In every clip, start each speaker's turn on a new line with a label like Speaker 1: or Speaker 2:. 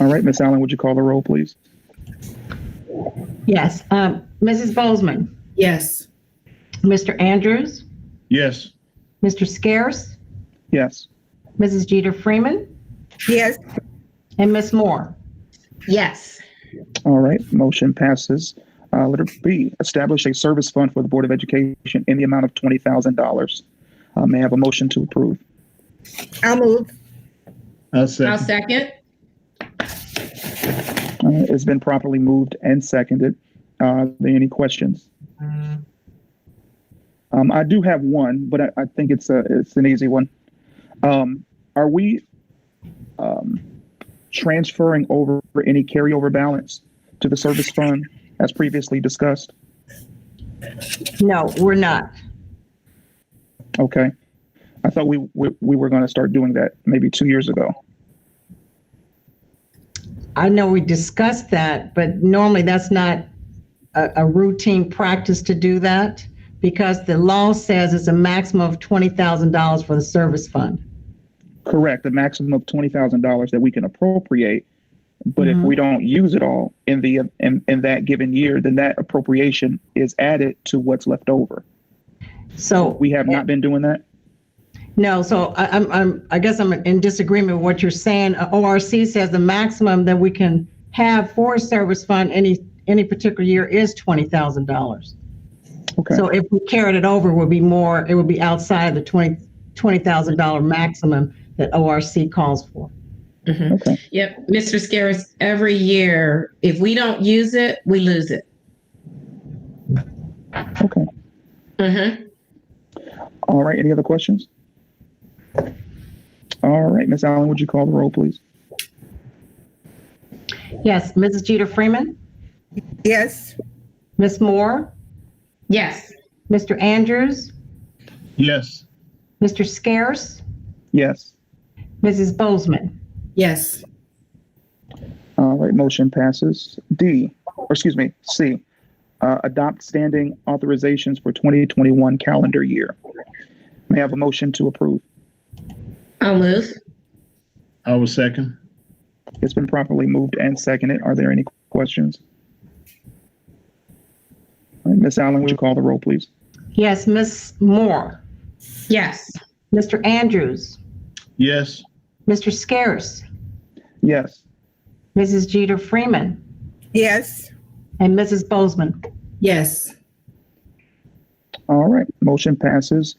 Speaker 1: All right, Miss Allen, would you call the roll, please?
Speaker 2: Yes. Um, Mrs. Bozeman,
Speaker 3: Yes.
Speaker 2: Mr. Andrews,
Speaker 4: Yes.
Speaker 2: Mr. Scarce,
Speaker 1: Yes.
Speaker 2: Mrs. Jeter Freeman,
Speaker 3: Yes.
Speaker 2: and Ms. Moore.
Speaker 3: Yes.
Speaker 1: All right, motion passes. Uh, letter B, establish a service fund for the Board of Education in the amount of twenty thousand dollars. Uh, may I have a motion to approve?
Speaker 3: I'll move.
Speaker 4: I'll
Speaker 5: I'll
Speaker 4: second.
Speaker 5: second.
Speaker 1: Uh, it's been properly moved and seconded. Uh, are there any questions? Um, I do have one, but I, I think it's a, it's an easy one. Um, are we, um, transferring over any carryover balance to the service fund as previously discussed?
Speaker 2: No, we're not.
Speaker 1: Okay. I thought we, we, we were going to start doing that maybe two years ago.
Speaker 2: I know we discussed that, but normally that's not a, a routine practice to do that because the law says it's a maximum of $20,000 for the service fund.
Speaker 1: Correct. The maximum of twenty thousand dollars that we can appropriate. But if
Speaker 2: Mhm.
Speaker 1: we don't use it all in the in, in that given year, then that appropriation is added to what's left over.
Speaker 2: So
Speaker 1: We have not been doing that.
Speaker 2: No, so I, I'm, I'm, I guess I'm in disagreement with what you're saying. Uh, ORC says the maximum that we can have for a service fund any, any particular year is twenty thousand dollars.
Speaker 1: Okay.
Speaker 2: So if we carried it over, it would be more, it would be outside the twenty, twenty thousand dollar maximum that ORC calls for.
Speaker 5: Mhm.
Speaker 1: okay.
Speaker 5: Yep, Mr. Scaris, every year, if we don't use it, we lose it.
Speaker 1: Okay.
Speaker 3: Mm-hmm.
Speaker 5: Mhm.
Speaker 1: All right. Any other questions? All right, Miss Allen, would you call the roll, please?
Speaker 2: Yes, Mrs. Jeter Freeman,
Speaker 3: Yes.
Speaker 2: Ms. Moore,
Speaker 5: Yes.
Speaker 2: Mr. Andrews,
Speaker 4: Yes.
Speaker 2: Mr. Scarce,
Speaker 1: Yes.
Speaker 2: Mrs. Bozeman.
Speaker 3: Yes.
Speaker 1: All right, motion passes. D, or excuse me, C, uh, adopt standing authorizations for 2021 calendar year. May I have a motion to approve?
Speaker 5: I'll move.
Speaker 4: I will second.
Speaker 1: It's been properly moved and seconded. Are there any questions? All right, Ms. Allen, would you call the roll, please?
Speaker 2: Yes, Ms. Moore,
Speaker 5: Yes.
Speaker 2: Mr. Andrews,
Speaker 4: Yes.
Speaker 2: Mr. Scarce,
Speaker 1: Yes.
Speaker 2: Mrs. Jeter Freeman,
Speaker 3: Yes.
Speaker 2: and Mrs. Bozeman.
Speaker 3: Yes.
Speaker 1: All right, motion passes.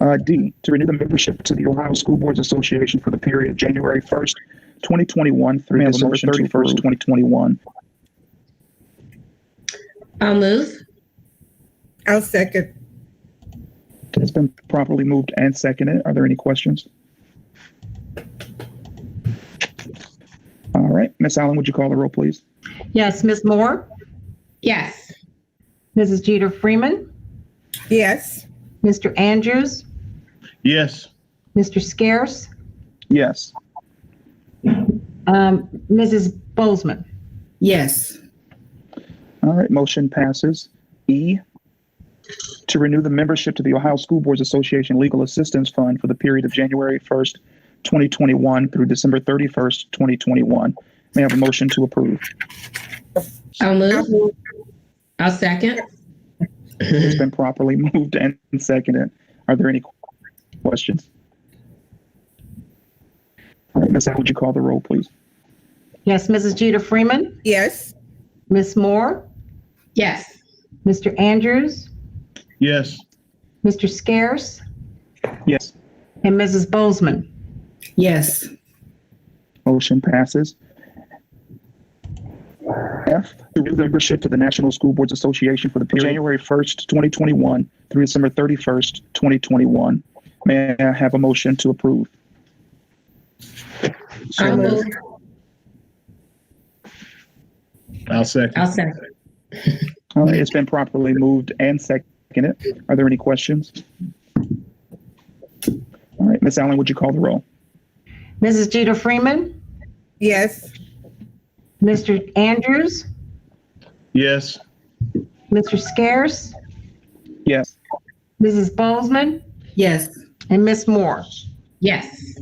Speaker 1: Uh, D, to renew the membership to the Ohio School Boards Association for the period January 1st, 2021 through December 31st, 2021.
Speaker 5: I'll move.
Speaker 3: I'll second.
Speaker 1: It's been properly moved and seconded. Are there any questions? All right, Miss Allen, would you call the roll, please?
Speaker 2: Yes, Ms. Moore,
Speaker 5: Yes.
Speaker 2: Mrs. Jeter Freeman,
Speaker 3: Yes.
Speaker 2: Mr. Andrews,
Speaker 4: Yes.
Speaker 2: Mr. Scarce,
Speaker 1: Yes.
Speaker 2: um, Mrs. Bozeman.
Speaker 3: Yes.
Speaker 1: All right, motion passes. E, to renew the membership to the Ohio School Boards Association Legal Assistance Fund for the period of January 1st, 2021 through December 31st, 2021. May I have a motion to approve?
Speaker 5: I'll
Speaker 3: I'll
Speaker 5: move.
Speaker 3: move.
Speaker 5: I'll second.
Speaker 1: It's been properly moved and seconded. Are there any questions? All right, Ms. Al, would you call the roll, please?
Speaker 2: Yes, Mrs. Jeter Freeman,
Speaker 3: Yes.
Speaker 2: Ms. Moore,
Speaker 5: Yes.
Speaker 2: Mr. Andrews,
Speaker 4: Yes.
Speaker 2: Mr. Scarce,
Speaker 1: Yes.
Speaker 2: and Mrs. Bozeman.
Speaker 3: Yes.
Speaker 1: Motion passes. F, to renew membership to the National School Boards Association for the period January 1st, 2021 through December 31st, 2021. May I have a motion to approve?
Speaker 5: I'll move.
Speaker 4: I'll second.
Speaker 5: I'll second.
Speaker 1: All right, it's been properly moved and seconded. Are there any questions? All right, Ms. Allen, would you call the roll?
Speaker 2: Mrs. Jeter Freeman,
Speaker 3: Yes.
Speaker 2: Mr. Andrews,
Speaker 4: Yes.
Speaker 2: Mr. Scarce,
Speaker 1: Yes.
Speaker 2: Mrs. Bozeman,
Speaker 3: Yes.
Speaker 2: and Ms. Moore.
Speaker 5: Yes.